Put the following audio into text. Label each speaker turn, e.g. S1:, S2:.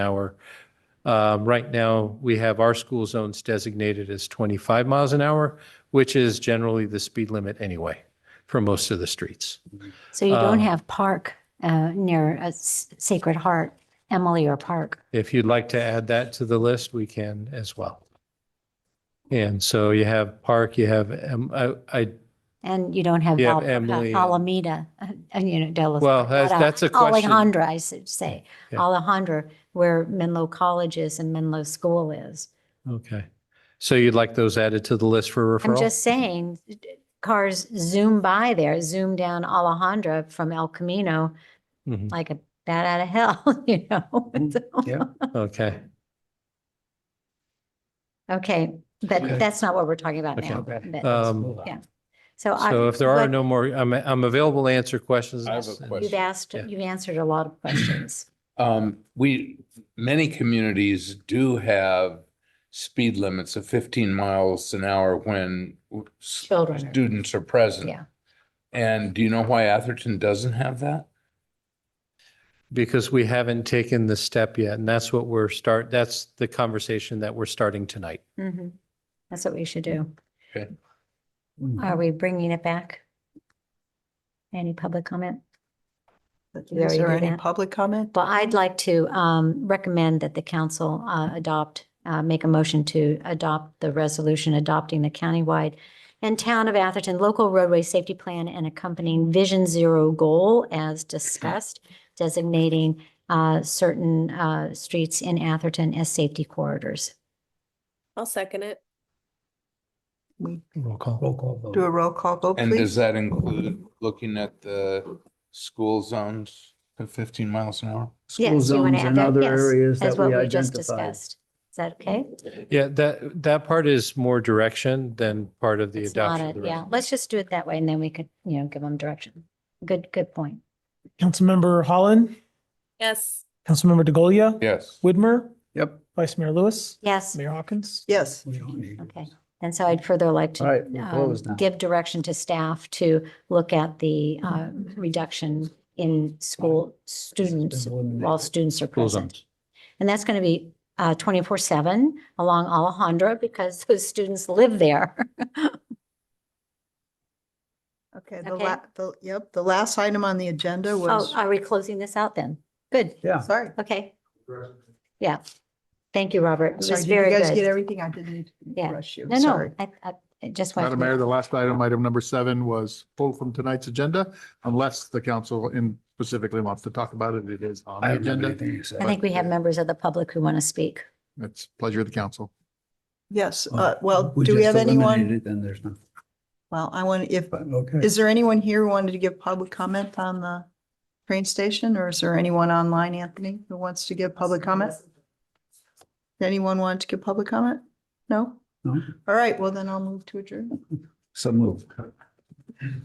S1: hour. Um, Right now, we have our school zones designated as 25 miles an hour, which is generally the speed limit anyway for most of the streets.
S2: So you
S1: Um,
S2: don't have park uh, near uh, S- Sacred Heart, Emily or Park.
S1: If you'd like to add that to the list, we can as well. And so you have Park, you have, um, I, I-
S2: And you don't have
S1: You have
S2: Val-
S1: Emily
S2: uh,
S1: and-
S2: Alameda, uh, uh, you know, Dallas.
S1: well, that's, that's a question.
S2: Alejandra, I should say.
S1: Yeah.
S2: Alejandra, where Menlo College is and Menlo School is.
S1: Okay. So you'd like those added to the list for
S2: I'm
S1: referral?
S2: just saying, cars zoom by there, zoom down Alejandra from El Camino
S1: Mhm.
S2: like a bat out of hell, you know? So-
S1: Mm-hmm. yeah. Okay, Okay.
S2: Okay, but that's not what we're talking about
S1: Okay.
S2: now.
S3: Okay.
S2: but-
S1: Um,
S2: Yeah. So I.
S1: so if there are
S2: what-
S1: no more, I'm, I'm available to answer questions.
S4: I have a question.
S2: You've asked,
S1: Yeah.
S2: you've answered a lot of questions.
S4: Um, we, many communities do have speed limits of fifteen miles an hour when s-
S2: Children are-
S4: students are present.
S2: Yeah.
S4: And do you know why Atherton doesn't have that?
S1: Because we haven't taken the step yet, and that's what we're start, that's the conversation that we're starting tonight.
S2: Mhm. That's what we should do.
S4: Okay.
S2: Are we bringing it back? Any public comment? We
S5: Is
S2: already
S5: there
S2: did
S5: any
S2: that.
S5: public comment?
S2: Well, I'd like to um, recommend that the council uh, adopt, uh, make a motion to adopt the resolution adopting the countywide and town of Atherton local roadway safety plan and accompanying Vision Zero goal as discussed, designating uh, certain uh, streets in Atherton as safety corridors.
S6: I'll second it.
S1: Roll call.
S3: Roll call vote.
S5: Do a roll call vote,
S4: And does
S5: please.
S4: that include looking at the school zones at fifteen miles an hour?
S2: Yes,
S3: School
S2: you wanna
S3: zones
S2: add
S3: and
S2: that?
S3: other
S2: Yes,
S3: areas
S2: as
S3: that
S2: what
S3: we
S2: just
S3: identified.
S2: discussed. Is that okay?
S1: Yeah, that, that part is more direction than part of the
S2: It's not
S1: adoption. of
S2: a-
S1: the
S2: Yeah,
S1: resolution.
S2: let's just do it that way and then we could, you know, give them direction. Good, good point.
S7: Councilmember Holland,
S6: Yes.
S7: Councilmember DeGolia,
S4: Yes.
S7: Widmer,
S3: Yep.
S7: Vice Mayor Lewis,
S2: Yes.
S7: Mayor Hawkins.
S5: Yes,
S3: We don't need
S2: Okay.
S3: those.
S2: And so I'd further like to
S3: All right, we're
S2: um,
S3: closed now.
S2: give direction to staff to look at the
S5: Mm-hmm.
S2: uh, reduction in school students while students are
S1: School zone.
S2: present. And that's going to be uh, twenty-four seven along Alejandra because those students live there.
S5: okay, the
S2: Okay.
S5: la, the, yep, the last item on the agenda
S2: Oh,
S5: was,
S2: are we closing this out then? Good,
S3: Yeah.
S5: sorry.
S2: okay. Yeah. Thank you, Robert. It
S5: Sorry,
S2: was
S5: did you
S2: very
S5: guys get
S2: good.
S5: everything? I didn't
S2: Yeah.
S5: rush you,
S2: No,
S5: sorry.
S2: no, I, I I just wanted.
S8: Madam
S2: to-
S8: Mayor, the last item, item number seven, was pulled from tonight's agenda unless the council in specifically wants to talk about it. It is on
S3: I don't
S8: the
S3: have
S8: agenda.
S3: anything to say.
S2: I think we have members of the public who want to speak.
S8: It's pleasure of the council.
S5: Yes,
S3: Oh,
S5: uh, well,
S3: we
S5: do we
S3: just
S5: have anyone?
S3: eliminated it, Then there's nothing.
S5: Well, I want, if,
S3: But, okay.
S5: is there anyone here who wanted to give public comment on the train station? Or is there anyone online, Anthony, who wants to give public comment? Anyone want to give public comment? No?
S3: No?
S5: All right, well then I'll move to adjourn.
S3: So move.